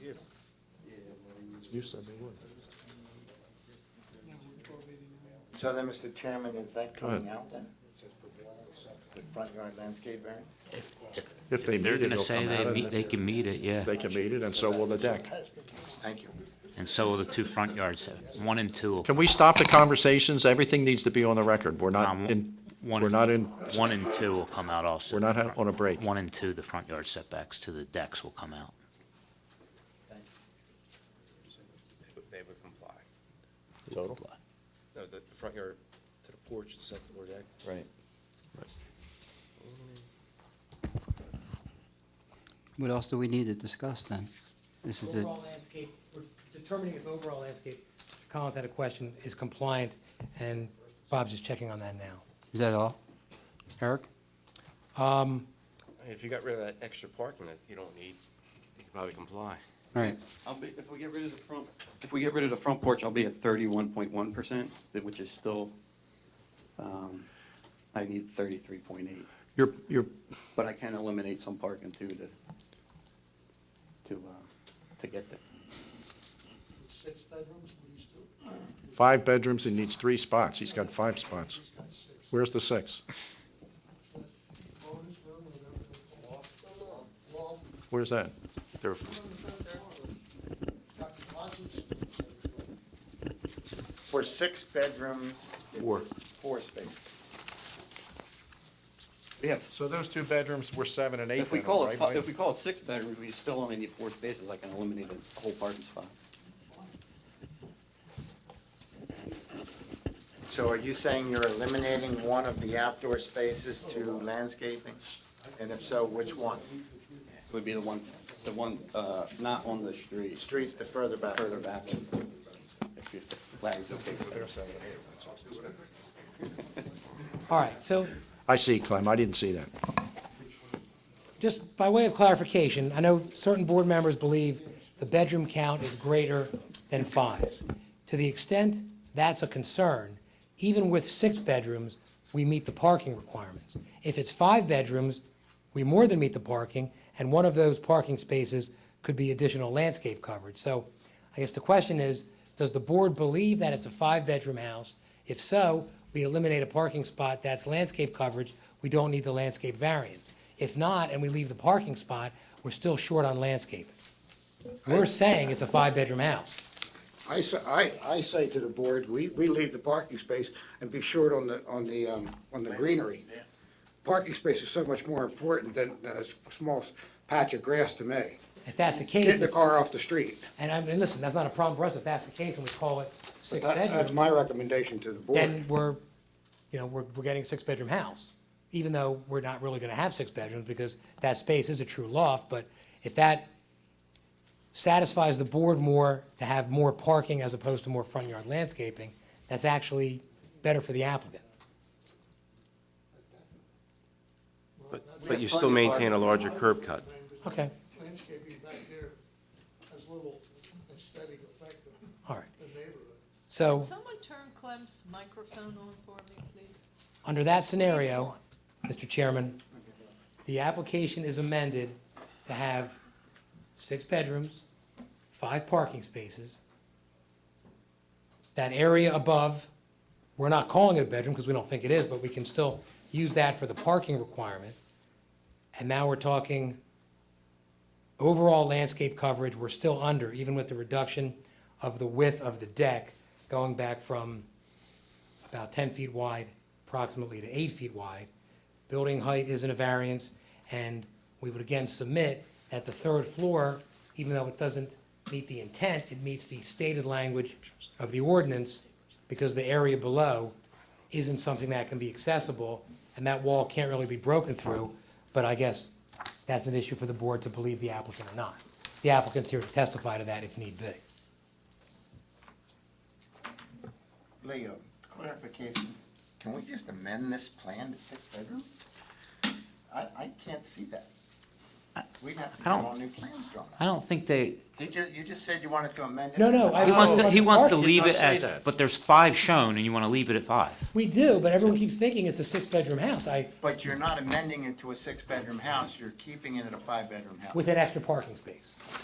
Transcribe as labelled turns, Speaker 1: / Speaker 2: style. Speaker 1: you said they would.
Speaker 2: So then, Mr. Chairman, is that
Speaker 1: Go ahead.
Speaker 2: coming out then? The front yard landscape variance?
Speaker 3: If,
Speaker 1: If they
Speaker 3: they're
Speaker 1: meet it,
Speaker 3: gonna
Speaker 1: it'll
Speaker 3: say
Speaker 1: come out
Speaker 3: they
Speaker 1: of
Speaker 3: meet,
Speaker 1: it.
Speaker 3: they can meet it, yeah.
Speaker 1: They can meet it, and so will the deck.
Speaker 2: Thank you.
Speaker 3: And so will the two front yards, one and two.
Speaker 1: Can we stop the conversations? Everything needs to be on the record. We're
Speaker 3: Um,
Speaker 1: not in,
Speaker 3: one
Speaker 1: we're
Speaker 3: and-
Speaker 1: not in,
Speaker 3: One and two will come out also.
Speaker 1: we're not ha- on a break.
Speaker 3: One and two, the front yard setbacks to the decks will come out.
Speaker 4: They would comply.
Speaker 1: Total?
Speaker 4: No, the, the front yard to the porch, the second floor deck.
Speaker 1: Right.
Speaker 5: What else do we need to discuss then? This is it.
Speaker 6: Overall landscape, we're determining if overall landscape, Collins had a question, is compliant, and Bob's just checking on that now.
Speaker 5: Is that all? Eric?
Speaker 6: Um,
Speaker 4: If you got rid of that extra parking that you don't need, you could probably comply.
Speaker 5: All right.
Speaker 7: I'll be, if we get rid of the front, if we get rid of the front porch, I'll be at thirty-one point one percent, which is still, um, I need thirty-three point eight,
Speaker 1: You're, you're,
Speaker 7: but I can eliminate some parking too to, to, uh, to get there.
Speaker 8: Six bedrooms, what do you still,
Speaker 1: five bedrooms and needs three spots. He's got five spots.
Speaker 8: he's got six,
Speaker 1: Where's the six?
Speaker 8: bonus room, and everything, loft, loft,
Speaker 1: Where's that? There,
Speaker 8: got closets.
Speaker 2: For six bedrooms,
Speaker 1: Four.
Speaker 2: it's four spaces.
Speaker 7: We have,
Speaker 1: so those two bedrooms were seven and eight
Speaker 7: if we
Speaker 1: bedroom,
Speaker 7: call it,
Speaker 1: right,
Speaker 7: fi-
Speaker 1: Mike?
Speaker 7: if we call it six bedrooms, we still only need four spaces, I can eliminate a whole parking spot.
Speaker 2: So are you saying you're eliminating one of the outdoor spaces to landscaping? And if so, which one?
Speaker 7: It Would be the one, the one, uh, not on the street,
Speaker 2: Street the further back.
Speaker 7: further back. If you- if Larry's okay with that.
Speaker 6: All right, so
Speaker 1: I see, Clem. I didn't see that.
Speaker 6: just by way of clarification, I know certain board members believe the bedroom count is greater than five. To the extent that's a concern, even with six bedrooms, we meet the parking requirements. If it's five bedrooms, we more than meet the parking, and one of those parking spaces could be additional landscape coverage. So I guess the question is, does the board believe that it's a five-bedroom house? If so, we eliminate a parking spot, that's landscape coverage, we don't need the landscape variance. If not, and we leave the parking spot, we're still short on landscape. We're saying it's a five-bedroom house.
Speaker 8: I say, I, I say to the board, we, we leave the parking space and be short on the, on the, um, on the greenery. Parking space is so much more important than, than a s- small patch of grass to me.
Speaker 6: If that's the
Speaker 8: Get
Speaker 6: case,
Speaker 8: the car off the street.
Speaker 6: and I mean, listen, that's not a problem for us if that's the case and we call it six
Speaker 8: That- That's
Speaker 6: bedrooms,
Speaker 8: my recommendation to the board.
Speaker 6: then we're, you know, we're, we're getting a six-bedroom house. Even though we're not really gonna have six bedrooms because that space is a true loft, but if that satisfies the board more to have more parking as opposed to more front yard landscaping, that's actually better for the applicant.
Speaker 4: But you still maintain a larger curb cut.
Speaker 6: Okay,
Speaker 8: Landscaping back there has little aesthetic effect
Speaker 6: all right.
Speaker 8: on the neighborhood.
Speaker 6: So,
Speaker 9: Someone turn Clem's microphone on for me, please.
Speaker 6: under that scenario, Mr. Chairman, the application is amended to have six bedrooms, five parking spaces. That area above, we're not calling it a bedroom because we don't think it is, but we can still use that for the parking requirement. And now we're talking overall landscape coverage, we're still under, even with the reduction of the width of the deck, going back from about 10 feet wide, approximately to 8 feet wide. Building height isn't a variance, and we would again submit that the third floor, even though it doesn't meet the intent, it meets the stated language of the ordinance because the area below isn't something that can be accessible, and that wall can't really be broken through, but I guess that's an issue for the board to believe the applicant or not. The applicant's here to testify to that if need be.
Speaker 2: Leo, clarification, can we just amend this plan to six bedrooms? I, I can't see that. We'd have to
Speaker 3: I
Speaker 2: get
Speaker 3: don't-
Speaker 2: all new plans drawn up.
Speaker 3: I don't think they,
Speaker 2: You just, you just said you wanted to amend it.
Speaker 6: No, no, I-
Speaker 3: he wants to, he wants to
Speaker 6: Mark did
Speaker 3: leave
Speaker 1: not
Speaker 3: it
Speaker 1: say
Speaker 3: as,
Speaker 1: that.
Speaker 3: but there's five shown and you wanna leave it at five.
Speaker 6: We do, but everyone keeps thinking it's a six-bedroom house. I,
Speaker 2: But you're not amending it to a six-bedroom house, you're keeping it at a five-bedroom house.
Speaker 6: with an extra parking space.